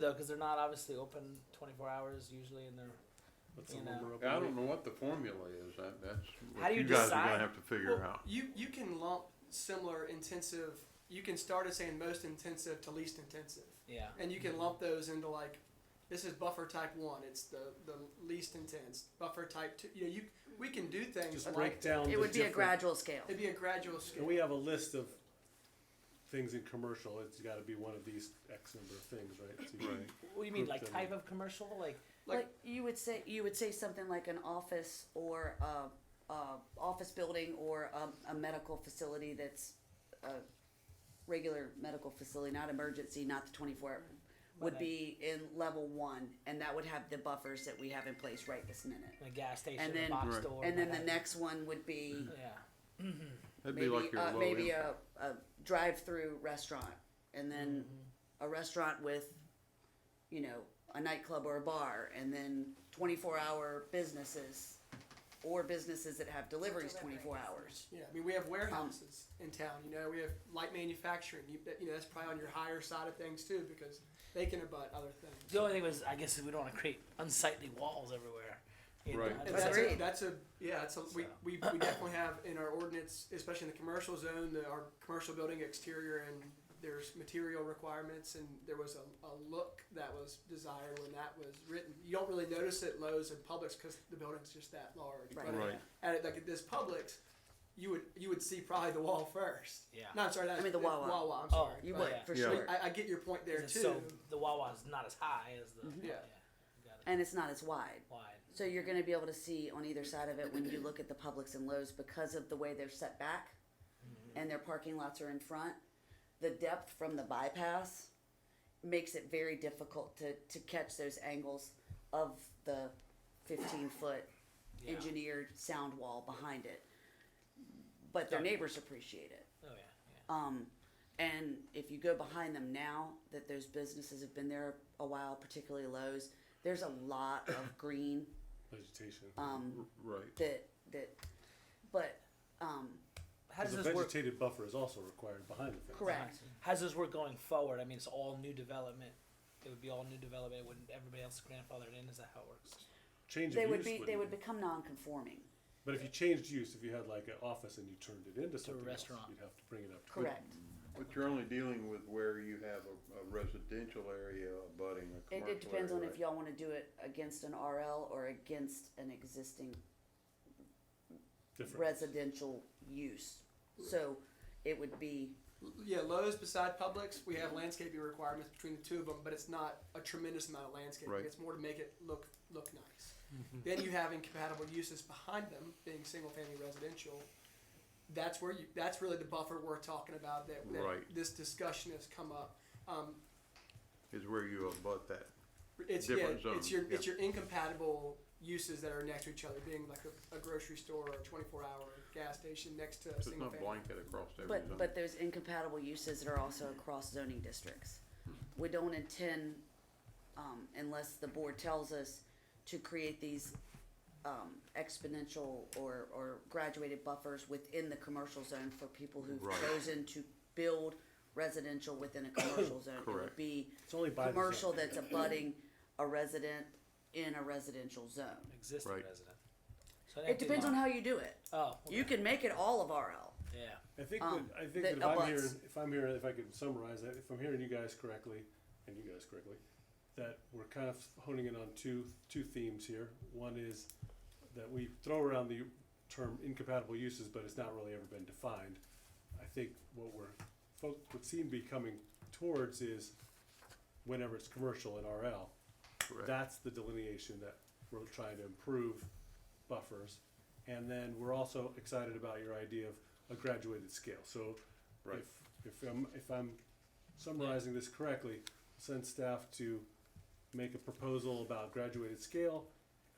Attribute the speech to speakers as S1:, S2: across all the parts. S1: though, because they're not obviously open 24 hours usually, and they're
S2: What's
S1: You
S2: the
S1: know.
S2: number of
S3: Yeah, I
S2: them?
S3: don't know what the formula is. That, that's what
S1: How do you
S3: guys
S1: decide?
S3: are gonna have to figure
S2: Well,
S3: out.
S2: You you can lump similar intensive. You can start at saying most intensive to least intensive,
S1: yeah.
S2: and you can lump those into like, this is buffer type one. It's the the least intense. Buffer type two. You know, you we can do things
S4: Just
S2: like
S4: break down. the
S5: It would be a
S4: different-
S5: gradual scale.
S2: it'd be a gradual
S4: And
S2: scale.
S4: we have a list of things in commercial. It's got to be one of these X number of things, right? So you can-
S1: What do you mean,
S4: Group
S1: like
S4: them.
S1: type of commercial? Like
S2: like-
S5: Like, you would say, you would say something like an office or a, a office building or a, a medical facility that's a regular medical facility, not emergency, not the twenty-four hour, would be in level one, and that would have the buffers that we have in place right this minute.
S1: a gas station,
S5: And then-
S1: a box
S3: Right.
S1: store,
S5: And then the
S1: like-
S5: next one would be
S1: Yeah.
S3: That'd
S5: maybe
S3: be like your
S5: uh,
S3: low
S5: maybe
S3: end.
S5: a, a drive-through restaurant, and then a restaurant with, you know, a nightclub or a bar, and then twenty-four hour businesses, or businesses that have deliveries twenty-four hours.
S2: Yeah, I mean, we have warehouses in town. You know, we have light manufacturing. You, bet- you know, that's probably on your higher side of things too, because they can abut other things.
S1: The only thing was, I guess, we don't want to create unsightly walls everywhere. you know,
S3: Right.
S1: and
S2: And
S1: that's-
S2: that's
S5: Agreed.
S2: a, that's a yeah. That's a, we, we, we definitely have in our ordinance, especially in the commercial zone, the, our commercial building exterior, and there's material requirements, and there was a, a look that was desired when that was written. You don't really notice it Lowe's and Publix because the building's just that large.
S5: Right.
S2: But
S3: Right.
S2: At it, like at this Publix, you would you would see probably the wall first.
S1: Yeah.
S2: No, I'm sorry. Not,
S5: I mean the Wawa.
S2: Wawa. I'm
S1: Oh,
S2: sorry.
S5: You
S2: but-
S5: would
S1: yeah.
S5: for
S3: Yeah.
S5: sure,
S2: I, I get your point there
S1: it's
S2: too.
S1: So the Wawa's not as high as the Got
S2: Yeah.
S1: it.
S5: Mm-hmm. and it's not as wide.
S1: Wide.
S5: So you're going to be able to see on either side of it when you look at the Publix and Lowe's because of the way they're set back and their parking lots are in front. The depth from the bypass makes it very difficult to, to catch those angles of the 15 foot
S1: Yeah.
S5: engineered sound wall behind it. But their neighbors appreciate it.
S1: Oh yeah. yeah.
S5: Um, and if you go behind them now that those businesses have been there a while, particularly Lowe's, there's a lot of green
S4: Vegetation.
S5: um,
S3: Right.
S5: that that but um,
S1: How does
S4: the
S1: this work?
S4: vegetated buffer is also required behind the fence.
S5: correct
S1: How does this work going forward? I mean, it's all new development. It would be all new development. Wouldn't everybody else grandfathered in? Is that how it works?
S4: Change
S5: they
S4: of
S5: would
S4: use
S5: be they would
S4: be.
S5: become non-conforming
S4: But if you changed use, if you had like an office and you turned it into something else,
S1: restaurant.
S4: you'd have to bring it up. to code.
S5: correct
S3: But you're only dealing with where you have a, a residential area abutting a
S5: it,
S3: commercial
S5: it depends on
S3: area,
S5: if y'all want to do it against an RL or against an existing
S4: Different.
S5: residential use so it would be
S2: Yeah, Lowe's beside Publix, we have landscaping requirements between the two of them, but it's not a tremendous amount of landscaping.
S3: Right.
S2: It's more to make it look look nice. Then you have incompatible uses behind them, being single family residential. That's where you. That's really the buffer we're talking about. That, that
S3: Right.
S2: this discussion has come up. Um,
S3: Is where you abut that.
S2: it's
S3: Different
S2: yeah, it's
S3: zone,
S2: your it's your incompatible uses that are next to each other, being like a, a grocery store or a twenty four hour gas station next to a
S3: So It's
S2: single
S3: not
S2: family.
S3: blanket across every
S5: but
S3: zone.
S5: but there's incompatible uses that are also across zoning districts we don't intend um, unless the board tells us to create these um, exponential or, or graduated buffers within the commercial zone for people who've
S3: Right.
S5: chosen to build residential within a commercial zone. It
S3: Correct.
S5: would be
S4: It's only by
S5: commercial
S4: design.
S5: that's abutting a resident in a residential zone.
S1: Existing
S3: Right.
S1: resident. So an
S5: It
S1: empty
S5: depends on
S1: lot.
S5: how you do it.
S1: Oh.
S5: You can make it all of RL.
S1: Yeah.
S4: I think
S5: um,
S4: that, I think
S5: that
S4: that if I'm
S5: abuts.
S4: hearing, if I'm hearing, if I could summarize that, if I'm hearing you guys correctly, and you guys correctly, that we're kind of honing in on two two themes here. One is that we throw around the term incompatible uses, but it's not really ever been defined. I think what we're fo- what seem to be coming towards is whenever it's commercial and RL,
S3: Correct.
S4: that's the delineation that we're trying to improve buffers. And then we're also excited about your idea of a graduated scale. So
S3: Right.
S4: if, if I'm, if I'm summarizing this correctly, send staff to make a proposal about graduated scale.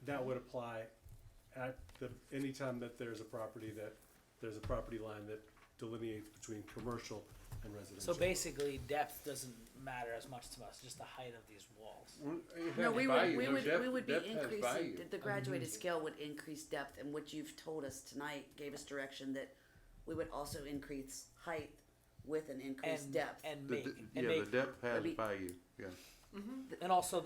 S4: That would apply at the, anytime that there's a property that, there's a property line that delineates between commercial and residential.
S1: So basically, depth doesn't matter as much to us. Just the height of these walls.
S3: Well, it
S5: No,
S3: has
S5: we
S3: value.
S5: would, we
S3: No,
S5: would,
S3: depth-
S5: we would be
S3: depth has
S5: increasing,
S3: value.
S5: the- the graduated scale would increase depth, and what you've told us tonight gave us direction that we would also increase height with an increased
S1: And
S5: depth.
S1: and
S3: The
S1: make
S3: de-
S1: and
S3: Yeah,
S1: make
S3: the depth has
S5: Maybe-
S3: value, yeah.
S1: And also